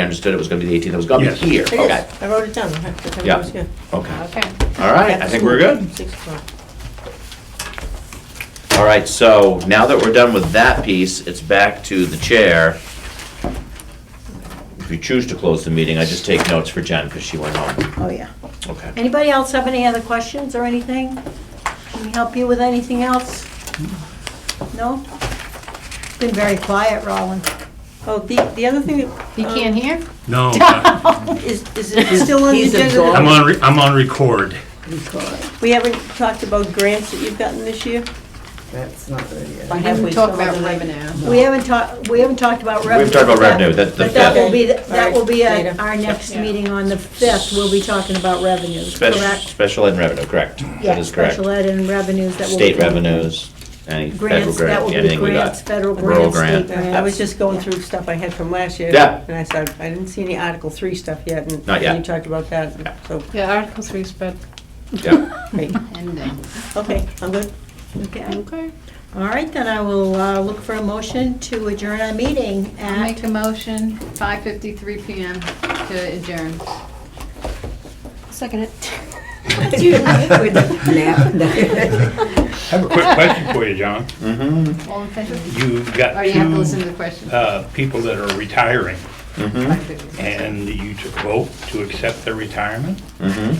I understood it was gonna be the 18th, it was gonna be Yes. here, It is. okay. I wrote it down. I have to- I Yeah. was here. Okay, Okay. all right, I think we're good. Six o'clock. All right, so now that we're done with that piece, it's back to the chair. If you choose to close the meeting, I just take notes for Jen because she went home. Oh, yeah. Okay. Anybody else have any other questions or anything? Can we help you with anything else? No? Been very quiet, Roland. Oh, the, the other thing You can't hear? No, I'm is, is it still on the He's agenda? absorbed. on, re- I'm on record. We haven't talked about grants that you've gotten this year? That's not good yet. Why We have didn't we talk still- about revenue. We haven't talked, we haven't talked about revenue. We've talked about revenue, that, But that that, will be, that will be Later. at our next meeting on the 5th, we'll be talking about revenues, special, correct? special ed revenue, correct? That Yeah, is correct. special ed and revenues that will be. State revenues, any federal Grants, that grant, will be anything we grants, got. federal Rural grants, state grant. grants. Yeah. I was just going through stuff I had from last year. Yeah. And I said, I didn't see any Article Three stuff yet, and Not yet. you talked about Yeah. that, so, Yeah, Article Three's bad Yeah. great. ending. okay, I'm good. Okay, Okay. all right, then I will uh, look for a motion to adjourn our meeting I make at, a motion, 5:53 PM to adjourn. Second it. I have a quick question for you, John. Mm-hmm, All in favor? You've Or got you have to listen to two the question. uh, people that are retiring, mm-hmm, and you took vote to accept their retirement. mm-hmm.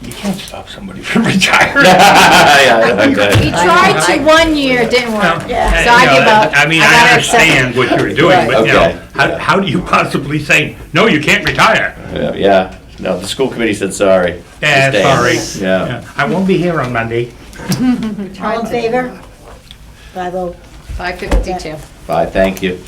You can't stop somebody from retiring. Yeah, We okay. tried to one year, it didn't work. So Uh, you I know, give up. I mean, gotta I accept it. understand what you're doing, but you Okay. know, how, how do you possibly say, no, you can't retire? Yeah, Yeah, no, the school committee said Eh, sorry. Yeah, Just sorry. Uh, dance. Yeah. I won't be here on Monday. all in favor? Five oh. 5:52. Bye, thank you.